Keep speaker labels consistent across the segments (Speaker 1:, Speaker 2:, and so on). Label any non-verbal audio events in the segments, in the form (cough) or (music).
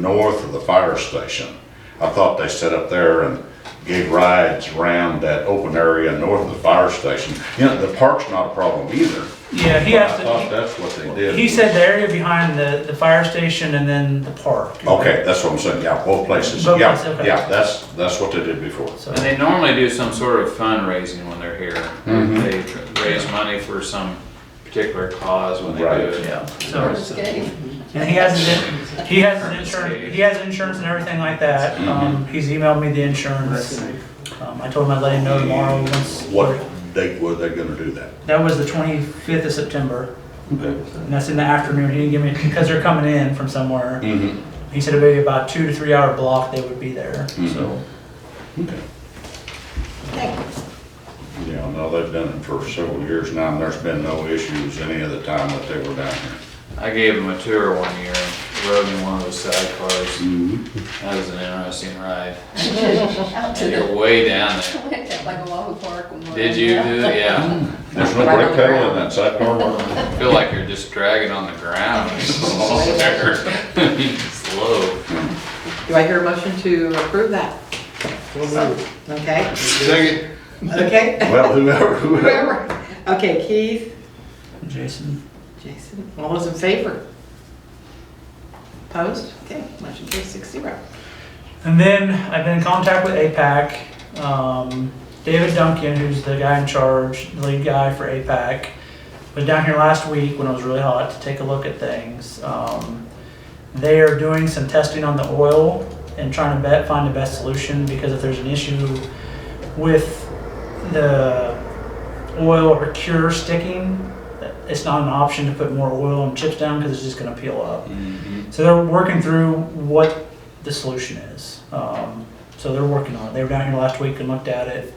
Speaker 1: north of the fire station. I thought they set up there and gave rides around that open area north of the fire station. You know, the park's not a problem either.
Speaker 2: Yeah, he
Speaker 1: But I
Speaker 2: has
Speaker 1: thought
Speaker 2: to,
Speaker 1: that's what they
Speaker 2: he- he
Speaker 1: did.
Speaker 2: said the area behind the, the fire station and then the park.
Speaker 1: Okay, that's what I'm saying, yeah, both places,
Speaker 2: Both
Speaker 1: yeah,
Speaker 2: places, okay.
Speaker 1: yeah, that's, that's what they did before.
Speaker 2: So,
Speaker 3: And they normally do some sort of fundraising when they're here.
Speaker 1: Mm-hmm.
Speaker 3: They tr- raise money for some particular cause when they do
Speaker 1: Right.
Speaker 3: it.
Speaker 2: yeah, so,
Speaker 4: First game.
Speaker 2: and he has, his in- he has his insurance, he has insurance and everything like that.
Speaker 1: Mm-hmm.
Speaker 2: Um, he's emailed me the insurance. Um, I told him I'd let him know tomorrow once.
Speaker 1: What date were they gonna do that?
Speaker 2: That was the twenty-fifth of September, and that's in the afternoon. He didn't give me, because they're coming in from somewhere.
Speaker 1: Mhm.
Speaker 2: He said it'd be about two to three hour block they would be there,
Speaker 1: Mm-hmm.
Speaker 2: so.
Speaker 1: Okay. Yeah, no, they've done it for several years now, and there's been no issues any of the time that they were down here.
Speaker 3: I gave them a tour one year, rode in one of those side cars.
Speaker 1: Mm-hmm.
Speaker 3: That was an interesting ride.
Speaker 4: Out to
Speaker 3: And
Speaker 4: the,
Speaker 3: you're way down there.
Speaker 4: went to like a Wahoo Park. and went
Speaker 3: Did you do,
Speaker 4: down.
Speaker 3: it? yeah.
Speaker 1: There's no
Speaker 4: Right on
Speaker 1: brake
Speaker 4: the
Speaker 1: pedal in
Speaker 4: ground.
Speaker 1: that sidecar, Mark.
Speaker 3: I Feel like you're just dragging on the ground. (laughs) It's all there. Slow.
Speaker 5: Do I hear a motion to approve that? Okay,
Speaker 3: Second.
Speaker 5: okay.
Speaker 1: Well, whoever, whoever.
Speaker 5: Whoever. Okay, Keith,
Speaker 2: Jason,
Speaker 5: Jason, all those in favor? Opposed? Okay, motion carries six zero.
Speaker 2: And then I've been in contact with APAC. Um, David Duncan, who's the guy in charge, the lead guy for APAC, was down here last week when it was really hot to take a look at things. Um, they are doing some testing on the oil and trying to bet, find the best solution because if there's an issue with the oil or cure sticking, it's not an option to put more oil and chips down because it's just going to peel up. So they're working through what the solution is. Um, so they're working on it. They were down here last week and looked at it.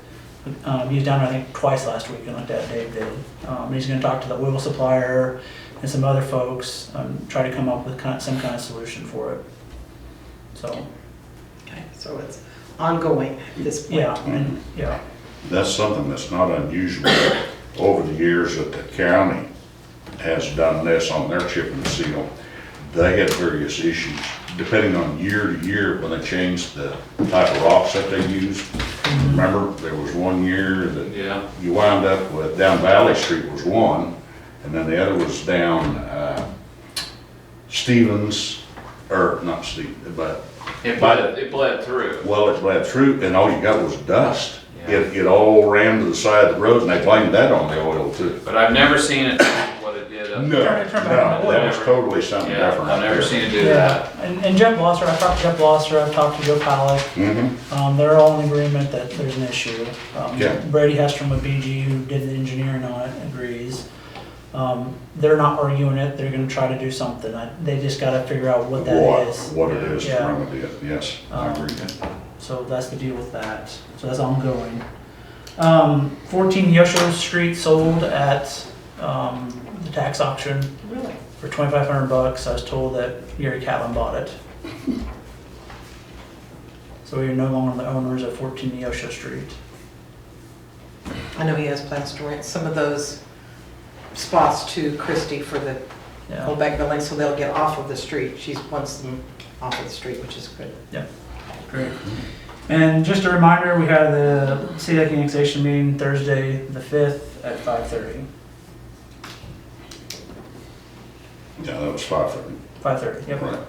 Speaker 2: Um, he was down, I think, twice last week and looked at it, Dave did. Um, he's gonna talk to the oil supplier and some other folks, um, try to come up with kind, some kind of solution for it. So,
Speaker 5: Okay, so it's ongoing at this point.
Speaker 2: yeah, and, yeah,
Speaker 1: That's something that's not unusual over the years that the county has done this on their chip and seal. They had various issues, depending on year to year, when they changed the type of rocks that they used. Remember, there was one year that
Speaker 3: Yeah.
Speaker 1: you wind up with, down Valley Street was one, and then the other was down, uh, Stevens, or not Stevens, but,
Speaker 3: It bled, it bled through.
Speaker 1: well, it bled through, and all you got was dust.
Speaker 3: Yeah.
Speaker 1: It, it all ran to the side of the road, and they blamed that on the oil too.
Speaker 3: But I've never seen it, what it did
Speaker 1: No,
Speaker 3: up
Speaker 1: no,
Speaker 2: Turn it, turn it back on.
Speaker 1: that was totally something
Speaker 3: Yeah,
Speaker 1: different.
Speaker 3: I've never seen it do that.
Speaker 2: yeah. And, and Jeff Blosser, I talked to Jeff Blosser, I've talked to Joe Palick,
Speaker 1: Mm-hmm,
Speaker 2: Um, they're all in agreement that there's an issue. Um,
Speaker 1: Yeah.
Speaker 2: Brady Hestrom with BG, who did the engineering on it, agrees. Um, they're not arguing it, they're gonna try to do something, I, they just gotta figure out what that
Speaker 1: what,
Speaker 2: is.
Speaker 1: what it is to
Speaker 2: Yeah.
Speaker 1: remedy it, yes, I
Speaker 2: Um,
Speaker 1: agree.
Speaker 2: So that's the deal with that, so that's ongoing. Um, fourteen Yosho Street sold at, um, the tax auction
Speaker 5: Really?
Speaker 2: for twenty-five hundred bucks, I was told that Gary Catlin
Speaker 1: (laughs)
Speaker 2: bought it. So we are no longer the owners of fourteen Yosho Street.
Speaker 5: I know he has plans to rent some of those spots to Christie for the
Speaker 2: Yeah.
Speaker 5: old bank building, so they'll get off of the street. She wants them off of the street, which is good.
Speaker 2: Great. And just a reminder, we have the City Lake Annexation meeting Thursday, the fifth, at five thirty.
Speaker 1: Yeah, that was five thirty,
Speaker 2: Five thirty, yep.
Speaker 1: right.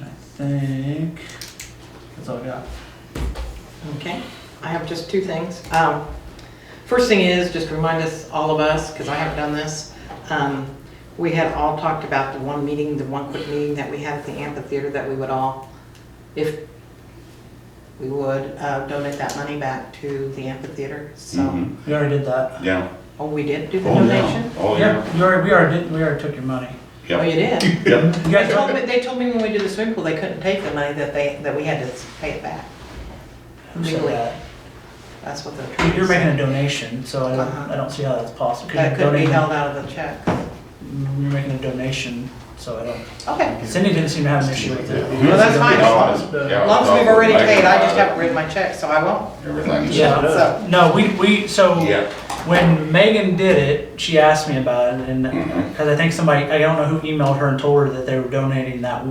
Speaker 2: I think that's all I got.
Speaker 5: Okay, I have just two things. Um, First thing is, just remind us, all of us, because I haven't done this, um, we had all talked about the one meeting, the one quick meeting that we had at the amphitheater that we would all, if we would, uh, donate that money back to the amphitheater, so.
Speaker 1: Mhm,
Speaker 2: We already did that.
Speaker 1: Yeah,
Speaker 5: Oh, we did do the
Speaker 1: oh, yeah,
Speaker 5: donation?
Speaker 1: oh, yeah,
Speaker 2: Yeah, you already, we already did, we already took your money.
Speaker 1: yeah,
Speaker 5: Oh, you
Speaker 1: (laughs)
Speaker 5: did?
Speaker 1: yeah.
Speaker 2: You
Speaker 5: They
Speaker 2: guys
Speaker 5: told
Speaker 2: took
Speaker 5: me,
Speaker 2: it?
Speaker 5: they told me when we did the swimming pool, they couldn't take the money that they, that we had to pay it back.
Speaker 2: Who said
Speaker 5: Legally.
Speaker 2: that?
Speaker 5: That's what they're
Speaker 2: You-
Speaker 5: trying to
Speaker 2: You're making
Speaker 5: say.
Speaker 2: a donation, so I don't,
Speaker 5: Uh-huh.
Speaker 2: I don't see how that's possible. 'cause
Speaker 5: That
Speaker 2: you're
Speaker 5: could be
Speaker 2: donating-
Speaker 5: held out of the check.
Speaker 2: You're making a donation, so I don't,
Speaker 5: Okay.
Speaker 2: Cindy didn't seem to have an issue with it.
Speaker 5: Well, that's fine.
Speaker 1: Yeah.
Speaker 5: As long as we've already paid, I just haven't written my check, so I won't.
Speaker 1: Everything's.
Speaker 2: Yeah.
Speaker 5: So,
Speaker 2: No, we, we, so.
Speaker 1: Yeah,
Speaker 2: when Megan did it,
Speaker 1: Mm-hmm.
Speaker 2: she asked me about it, and because I think somebody, I don't know who emailed her and told her that they were donating that